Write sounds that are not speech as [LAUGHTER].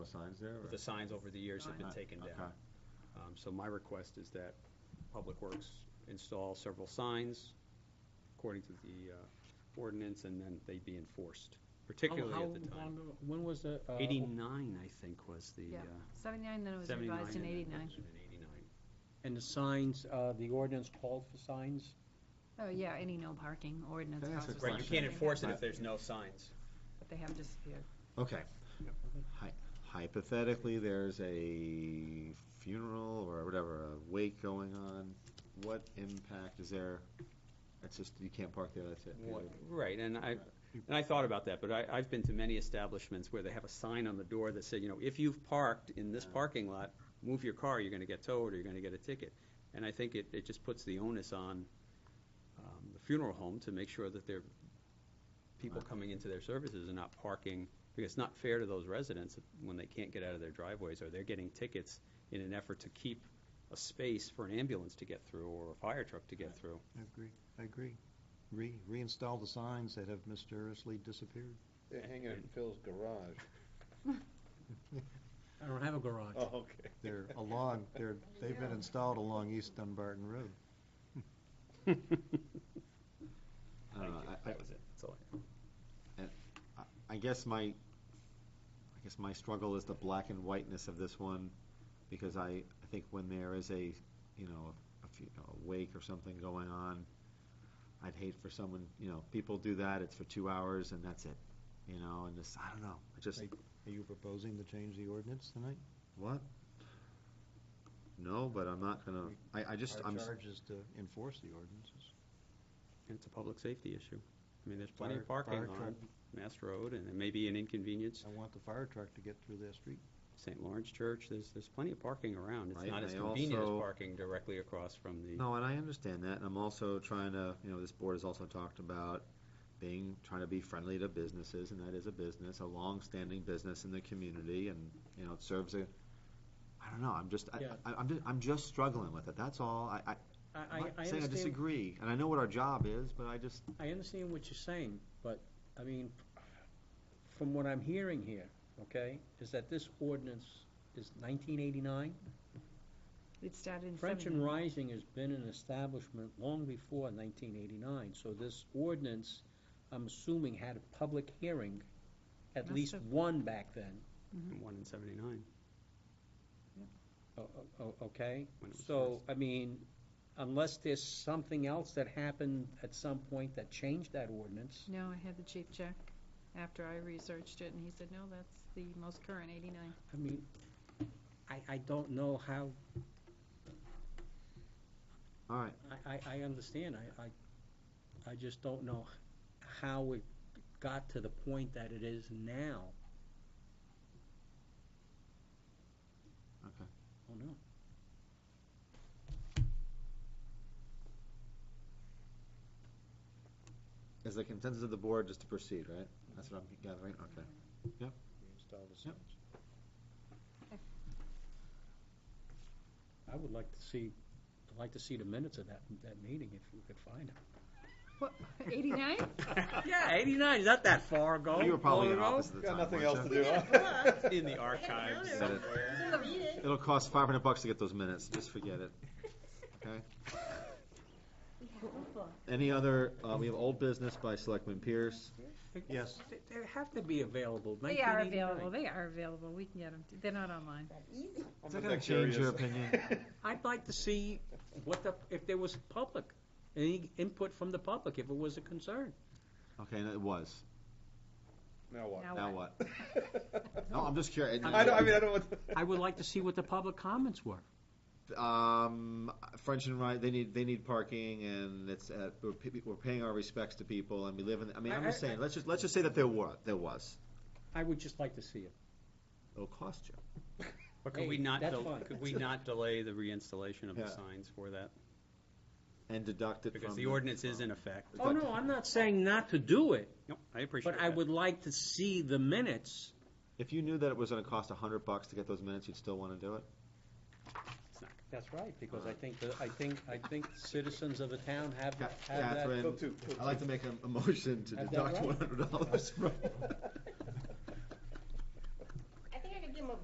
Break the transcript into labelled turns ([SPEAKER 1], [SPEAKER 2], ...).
[SPEAKER 1] The signs there? or-
[SPEAKER 2] The signs over the years have been
[SPEAKER 1] Right,
[SPEAKER 2] taken
[SPEAKER 1] okay.
[SPEAKER 2] down. Um, So my request is that Public Works install several signs according to the uh, ordinance, and then they be enforced, particularly
[SPEAKER 3] How-
[SPEAKER 4] Oh,
[SPEAKER 2] at the
[SPEAKER 3] Oh, how
[SPEAKER 2] time.
[SPEAKER 3] long- When was the? uh,
[SPEAKER 2] Eighty-nine, I think, was the,
[SPEAKER 4] Yeah,
[SPEAKER 2] uh,
[SPEAKER 4] 79, then it was
[SPEAKER 2] seventy-nine.
[SPEAKER 4] revised in
[SPEAKER 2] and then
[SPEAKER 4] 89.
[SPEAKER 2] revision in Eighty-nine.
[SPEAKER 3] And the signs, uh, the ordinance called for signs?
[SPEAKER 4] Oh, yeah, any no parking ordinance.
[SPEAKER 1] Can I ask a
[SPEAKER 4] causes
[SPEAKER 2] Right, you
[SPEAKER 1] Question.
[SPEAKER 2] can't enforce it if
[SPEAKER 1] Right.
[SPEAKER 2] there's no signs.
[SPEAKER 4] But they have disappeared.
[SPEAKER 1] Okay. Hy- Hypothetically, there's a funeral or whatever, a wake going on, what impact is there? It's just, you can't park there, that's it. period.
[SPEAKER 2] Right, and I, and I thought about that, but I, I've been to many establishments where they have a sign on the door that said, you know, if you've parked in this parking lot, move your car, you're gonna get towed, or you're gonna get a ticket. And I think it, it just puts the onus on, um, the funeral home to make sure that their, people coming into their services are not parking, because it's not fair to those residents when they can't get out of their driveways, or they're getting tickets in an effort to keep a space for an ambulance to get through, or a fire truck to get through.
[SPEAKER 5] I agree, I agree. Re, reinstall the signs that have mysteriously disappeared.
[SPEAKER 6] They're hanging in Phil's garage. [LAUGHS]
[SPEAKER 3] I don't have a garage.
[SPEAKER 6] Oh, okay.
[SPEAKER 5] They're along, they're, they've been installed along East Dunbarton Road.
[SPEAKER 1] I don't know, I- I-
[SPEAKER 2] That was it, that's all I
[SPEAKER 1] I guess my, I guess my struggle is the black and whiteness of this one, because I, I think when there is a, you know, a few, a wake or something going on, I'd hate for someone, you know, people do that, it's for two hours and that's it, you know, and this, I don't know, I just,
[SPEAKER 5] Are you proposing to change the ordinance tonight?
[SPEAKER 1] what? No, but I'm not gonna, I, I just, I'm,
[SPEAKER 5] Our charge is to enforce the ordinances.
[SPEAKER 2] And it's a public safety issue. I mean, there's plenty of
[SPEAKER 5] Fire-
[SPEAKER 2] parking
[SPEAKER 5] fire
[SPEAKER 2] on Mass Road, and it may be an inconvenience.
[SPEAKER 5] I want the fire truck to get through that street.
[SPEAKER 2] St. Lawrence Church, there's, there's plenty of parking around. It's
[SPEAKER 1] Right,
[SPEAKER 2] not
[SPEAKER 1] and
[SPEAKER 2] as
[SPEAKER 1] I
[SPEAKER 2] convenient as
[SPEAKER 1] also-
[SPEAKER 2] parking directly across from the,
[SPEAKER 1] no, and I understand that, and I'm also trying to, you know, this board has also talked about being, trying to be friendly to businesses, and that is a business, a long-standing business in the community, and, you know, it serves a, I don't know, I'm just, I,
[SPEAKER 3] Yeah.
[SPEAKER 1] I- I'm, just- I'm just struggling with it, that's all, I- I,
[SPEAKER 3] I, I,
[SPEAKER 1] I'm not
[SPEAKER 3] I
[SPEAKER 1] saying I
[SPEAKER 3] understand,
[SPEAKER 1] disagree, and I know what our job is, but I just,
[SPEAKER 3] I understand what you're saying, but, I mean, from what I'm hearing here, okay, is that this ordinance is nineteen eighty-nine?
[SPEAKER 4] It started in
[SPEAKER 3] French and
[SPEAKER 4] 79.
[SPEAKER 3] Rising has been an establishment long before nineteen eighty-nine, so this ordinance, I'm assuming, had a public hearing, at
[SPEAKER 4] Must
[SPEAKER 3] least
[SPEAKER 4] have.
[SPEAKER 3] one back then,
[SPEAKER 2] and one in 79.
[SPEAKER 3] O- o- o- okay?
[SPEAKER 2] When it was
[SPEAKER 3] So, I mean, unless there's something else that happened at some point that changed that ordinance,
[SPEAKER 4] No, I had the chief check after I researched it, and he said, no, that's the most current, 89. [LAUGHS]
[SPEAKER 3] I mean, I, I don't know how,
[SPEAKER 1] all right,
[SPEAKER 3] I, I, I understand, I, I, I just don't know how it got to the point that it is now.
[SPEAKER 1] Okay.
[SPEAKER 3] Oh, no.
[SPEAKER 1] is the consensus of the board just to proceed, right? That's what I'm gathering, okay.
[SPEAKER 5] Reinstall the
[SPEAKER 1] Yep.
[SPEAKER 5] signs.
[SPEAKER 3] I would like to see, I'd like to see the minutes of that, that meeting if you could find them.
[SPEAKER 4] What, 89?
[SPEAKER 3] Yeah, eighty-nine, is not that far ago.
[SPEAKER 1] You were probably
[SPEAKER 3] Long
[SPEAKER 1] in
[SPEAKER 3] ago.
[SPEAKER 1] office at the
[SPEAKER 6] Got
[SPEAKER 1] time,
[SPEAKER 6] nothing
[SPEAKER 1] weren't
[SPEAKER 6] else to
[SPEAKER 1] you?
[SPEAKER 6] do, huh?
[SPEAKER 2] [LAUGHS] In the archives
[SPEAKER 1] Set it.
[SPEAKER 2] somewhere.
[SPEAKER 1] It'll cost five hundred bucks to get those minutes, just forget it, okay? Any other, uh, we have old business by Selectman Pierce,
[SPEAKER 5] Yes,
[SPEAKER 3] They they have to be available,
[SPEAKER 4] They are
[SPEAKER 3] 1989.
[SPEAKER 4] available, they are available, we can get them, they're not online.
[SPEAKER 6] I'm
[SPEAKER 1] Is
[SPEAKER 6] not
[SPEAKER 1] that gonna
[SPEAKER 6] that
[SPEAKER 1] change your
[SPEAKER 6] curious.
[SPEAKER 3] I'd like to see what the, if there was public, any input from the public, if it was a concern.
[SPEAKER 1] okay, and it was,
[SPEAKER 6] [LAUGHS] Now what?
[SPEAKER 1] now
[SPEAKER 4] Now
[SPEAKER 1] what? No, I'm just curious.
[SPEAKER 6] [LAUGHS] I don't, I mean, I don't want.
[SPEAKER 3] I would like to see what the public comments were.
[SPEAKER 6] uh,
[SPEAKER 1] Um, French and Ryan, they need, they need parking, and it's, uh, we're, pe- we're paying our respects to people, and we live in, I mean, I'm just
[SPEAKER 3] I- I-
[SPEAKER 1] saying, let's just, let's just say that there were, there was,
[SPEAKER 3] I would just like to see it.
[SPEAKER 1] it'll cost you.
[SPEAKER 2] But could
[SPEAKER 3] Hey,
[SPEAKER 2] we not,
[SPEAKER 3] that's
[SPEAKER 2] del-
[SPEAKER 3] fine.
[SPEAKER 2] could we not delay the reinstallation of the
[SPEAKER 1] Yeah.
[SPEAKER 2] signs for that?
[SPEAKER 1] And deduct it from.
[SPEAKER 2] Because the ordinance is in effect.
[SPEAKER 3] Oh, no, I'm not saying not to do it,
[SPEAKER 2] Nope, I appreciate
[SPEAKER 3] but
[SPEAKER 2] that.
[SPEAKER 3] I would like to see the minutes.
[SPEAKER 1] If you knew that it was gonna cost a hundred bucks to get those minutes, you'd still wanna do it?
[SPEAKER 3] That's right, because I think, the- I think, I think citizens of the town have, that- have
[SPEAKER 6] [LAUGHS]
[SPEAKER 3] that.
[SPEAKER 1] Catherine,
[SPEAKER 6] Till two, till
[SPEAKER 1] I'd like to make a, a motion to
[SPEAKER 3] Have that
[SPEAKER 1] deduct
[SPEAKER 3] right.
[SPEAKER 1] one hundred dollars from.